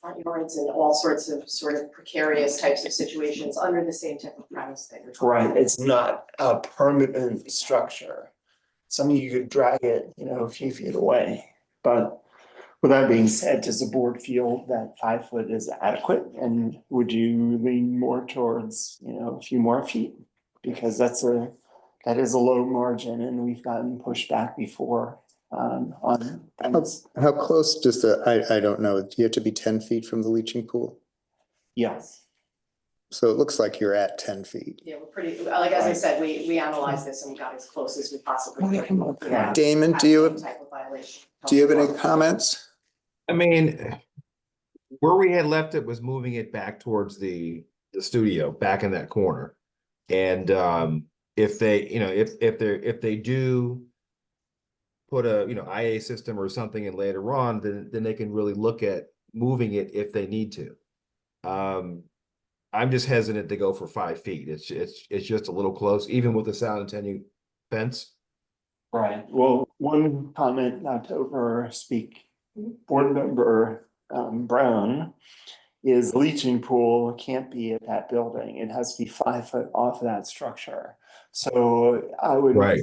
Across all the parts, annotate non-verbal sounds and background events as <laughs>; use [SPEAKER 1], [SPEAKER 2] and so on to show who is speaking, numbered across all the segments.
[SPEAKER 1] front yards and all sorts of sort of precarious types of situations under the same type of premise that you're talking about.
[SPEAKER 2] Right, it's not a permanent structure. Some of you could drag it, you know, a few feet away. But with that being said, does the board feel that five foot is adequate? And would you lean more towards, you know, a few more feet? Because that's a, that is a low margin and we've gotten pushed back before um on things.
[SPEAKER 3] How close does the, I, I don't know, do you have to be ten feet from the leaching pool?
[SPEAKER 2] Yes,
[SPEAKER 3] So it looks like you're at ten feet.
[SPEAKER 1] Yeah, we're pretty, like, as I
[SPEAKER 2] Right.
[SPEAKER 1] said, we, we analyzed this and we got as close as we possibly
[SPEAKER 2] Okay,
[SPEAKER 1] could.
[SPEAKER 2] okay.
[SPEAKER 1] without
[SPEAKER 3] Damon, do you,
[SPEAKER 1] having Type of violation.
[SPEAKER 3] do you have any comments?
[SPEAKER 4] I mean, where we had left it was moving it back towards the, the studio, back in that corner. And, um, if they, you know, if, if they're, if they do put a, you know, IA system or something in later on, then, then they can really look at moving it if they need to. Um, I'm just hesitant to go for five feet. It's, it's, it's just a little close, even with the sound attenuating fence.
[SPEAKER 2] right. Well, one comment not to over speak board member um Brown is leaching pool can't be at that building. It has to be five foot off that structure. So I would
[SPEAKER 4] Right.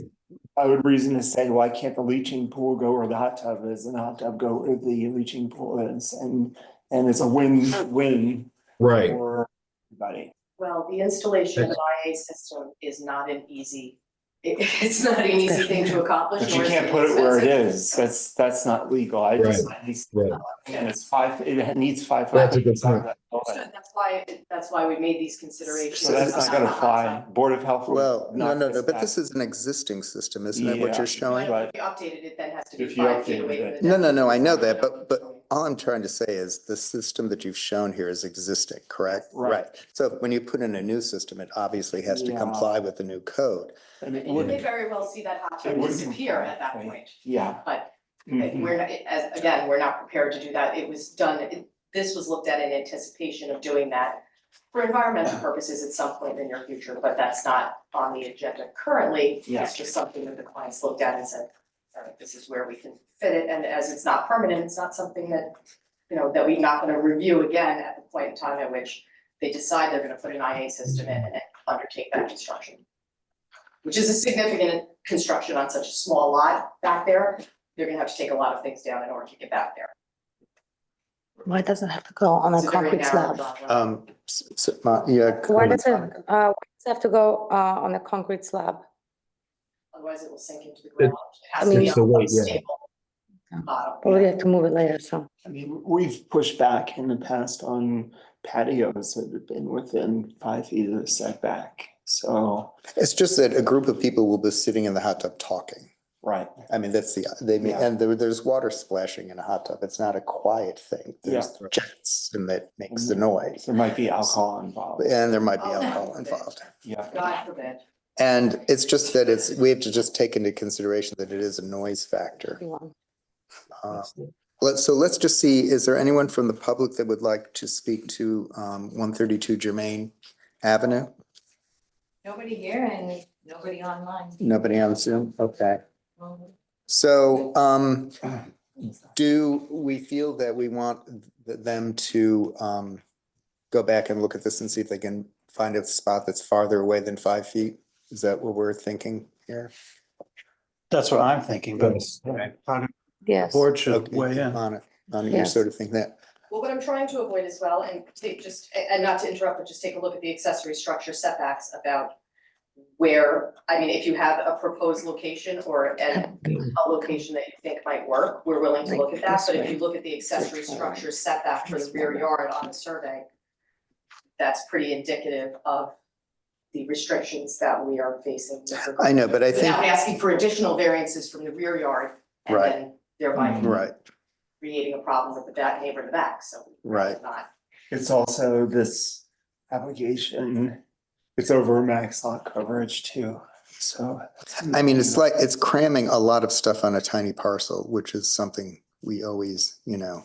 [SPEAKER 2] I would reason to say, why can't the leaching pool go where the hot tub is and the hot tub go where the leaching pool is? And and it's a win-win
[SPEAKER 4] Right.
[SPEAKER 2] for everybody.
[SPEAKER 1] Well, the installation of an IA system is not an easy, <laughs> it, it's not an easy thing to accomplish.
[SPEAKER 2] But you
[SPEAKER 1] nor is
[SPEAKER 2] can't put it where it
[SPEAKER 1] expensive.
[SPEAKER 2] is. That's that's not legal. I just
[SPEAKER 4] Right.
[SPEAKER 2] and it's five, it needs five.
[SPEAKER 4] That's a good
[SPEAKER 2] foot
[SPEAKER 4] point.
[SPEAKER 1] So that's why, that's why we made these considerations.
[SPEAKER 2] So that's not gonna fly. Board of Health. would
[SPEAKER 3] Well, no,
[SPEAKER 2] knock
[SPEAKER 3] no, no,
[SPEAKER 2] back.
[SPEAKER 3] but this is an existing system, isn't it, what
[SPEAKER 2] Yeah.
[SPEAKER 3] you're showing?
[SPEAKER 1] But
[SPEAKER 2] But-
[SPEAKER 1] if you updated it, then it has to be
[SPEAKER 2] If you
[SPEAKER 1] five feet
[SPEAKER 2] updated
[SPEAKER 1] away
[SPEAKER 2] it.
[SPEAKER 1] from the.
[SPEAKER 3] No, no, no, I know
[SPEAKER 1] deck.
[SPEAKER 3] that, but- but- All I'm trying to say is the system that you've shown here is existing, correct?
[SPEAKER 2] Right.
[SPEAKER 3] So when you put in a new system, it obviously has to
[SPEAKER 2] Yeah.
[SPEAKER 3] comply with the new code.
[SPEAKER 2] And it
[SPEAKER 1] You may
[SPEAKER 2] would,
[SPEAKER 1] very well see that hot tub
[SPEAKER 2] It wouldn't
[SPEAKER 1] disappear at that
[SPEAKER 2] comply,
[SPEAKER 1] point,
[SPEAKER 2] yeah.
[SPEAKER 1] but But
[SPEAKER 2] Mhm.
[SPEAKER 1] we're, not- as, again, we're not prepared to do that. It was done, it- this was looked at in anticipation of doing that for environmental purposes at some point in the near future, but that's not on the agenda currently.
[SPEAKER 2] Yeah.
[SPEAKER 1] It's just something that the clients looked at and said, all right, this is where we can fit it. And as it's not permanent, it's not something that, you know, that we're not gonna review again at the point in time at which they decide they're gonna put an IA system in and undertake that construction. Which is a significant construction on such a small lot back there they're gonna have to take a lot of things down in order to get back there.
[SPEAKER 5] Why does it have to go on
[SPEAKER 1] It's
[SPEAKER 5] a
[SPEAKER 1] a very
[SPEAKER 5] concrete
[SPEAKER 1] narrow
[SPEAKER 5] slab?
[SPEAKER 1] driveway.
[SPEAKER 3] Um, s- s- my- yeah.
[SPEAKER 5] Why
[SPEAKER 3] comment.
[SPEAKER 5] does it, uh, why does it have to go, uh, on a concrete slab?
[SPEAKER 1] Otherwise, it will sink into the ground. It has to
[SPEAKER 5] I
[SPEAKER 1] be
[SPEAKER 5] mean-
[SPEAKER 4] It's the weight, yeah.
[SPEAKER 1] unstable bottom.
[SPEAKER 5] Or we have to move it later, so.
[SPEAKER 2] I mean, we've pushed back in the past on patios that have been within five feet of the setback. So,
[SPEAKER 3] It's just that a group of people will be sitting in the hot tub talking.
[SPEAKER 2] right,
[SPEAKER 3] I mean, that's the, they, may-
[SPEAKER 2] Yeah.
[SPEAKER 3] and there, there's water splashing in a hot tub. It's not a quiet thing. There's jets and that makes the noise.
[SPEAKER 2] there might be alcohol involved.
[SPEAKER 3] And there might be
[SPEAKER 1] Oh,
[SPEAKER 3] alcohol
[SPEAKER 1] okay.
[SPEAKER 3] involved.
[SPEAKER 2] Yeah.
[SPEAKER 1] God forbid.
[SPEAKER 3] And it's just that it's, we have to just take into consideration that it is a noise factor.
[SPEAKER 5] everyone.
[SPEAKER 3] Uh, Let's, so let's just see, is there anyone from the public that would like to speak to um one thirty-two Germain Avenue?
[SPEAKER 6] Nobody here and nobody online.
[SPEAKER 3] Nobody on Zoom? Okay. So um, do we feel that we want th- them to um go back and look at this and see if they can find a spot that's farther away than five feet? Is that what we're thinking here?
[SPEAKER 7] That's what I'm thinking, but
[SPEAKER 4] Yes.
[SPEAKER 7] how do the
[SPEAKER 5] Yes.
[SPEAKER 7] board
[SPEAKER 3] Okay,
[SPEAKER 7] should weigh in?
[SPEAKER 3] On it, on your
[SPEAKER 5] Yes.
[SPEAKER 3] sort of thing that,
[SPEAKER 1] Well, what I'm trying to avoid as well, and take just, a- and not to interrupt, but just take a look at the accessory structure setbacks about where, I mean, if you have a proposed location or an,
[SPEAKER 5] <laughs>
[SPEAKER 1] a location that you think might work, we're willing to look at that, but if you look at the accessory structure setback for the rear yard on the survey, that's pretty indicative of the restrictions that we are facing. with regard-
[SPEAKER 3] I know, but I think,
[SPEAKER 1] Without asking for additional variances from the rear yard and
[SPEAKER 3] Right.
[SPEAKER 1] then thereby
[SPEAKER 3] right,
[SPEAKER 1] creating a problem with the back neighbor in the back, so
[SPEAKER 3] right.
[SPEAKER 1] not
[SPEAKER 2] It's also this application, it's over max lot coverage too, so.
[SPEAKER 3] I mean, it's like, it's cramming a lot of stuff on a tiny parcel, which is something we always, you know.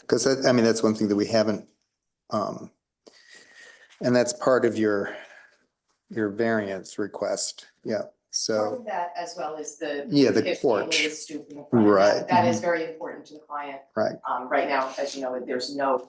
[SPEAKER 3] Because I, I mean, that's one thing that we haven't, um, and that's part of your, your variance request, yeah,
[SPEAKER 1] Part
[SPEAKER 3] so,
[SPEAKER 1] of that as well as the.
[SPEAKER 3] Yeah, the
[SPEAKER 1] 15
[SPEAKER 3] porch.
[SPEAKER 1] little stoop in the front. That-
[SPEAKER 3] Right. Mm-hmm.
[SPEAKER 1] That is very important to the client.
[SPEAKER 3] Right.
[SPEAKER 1] Um, right now, as you know, there's no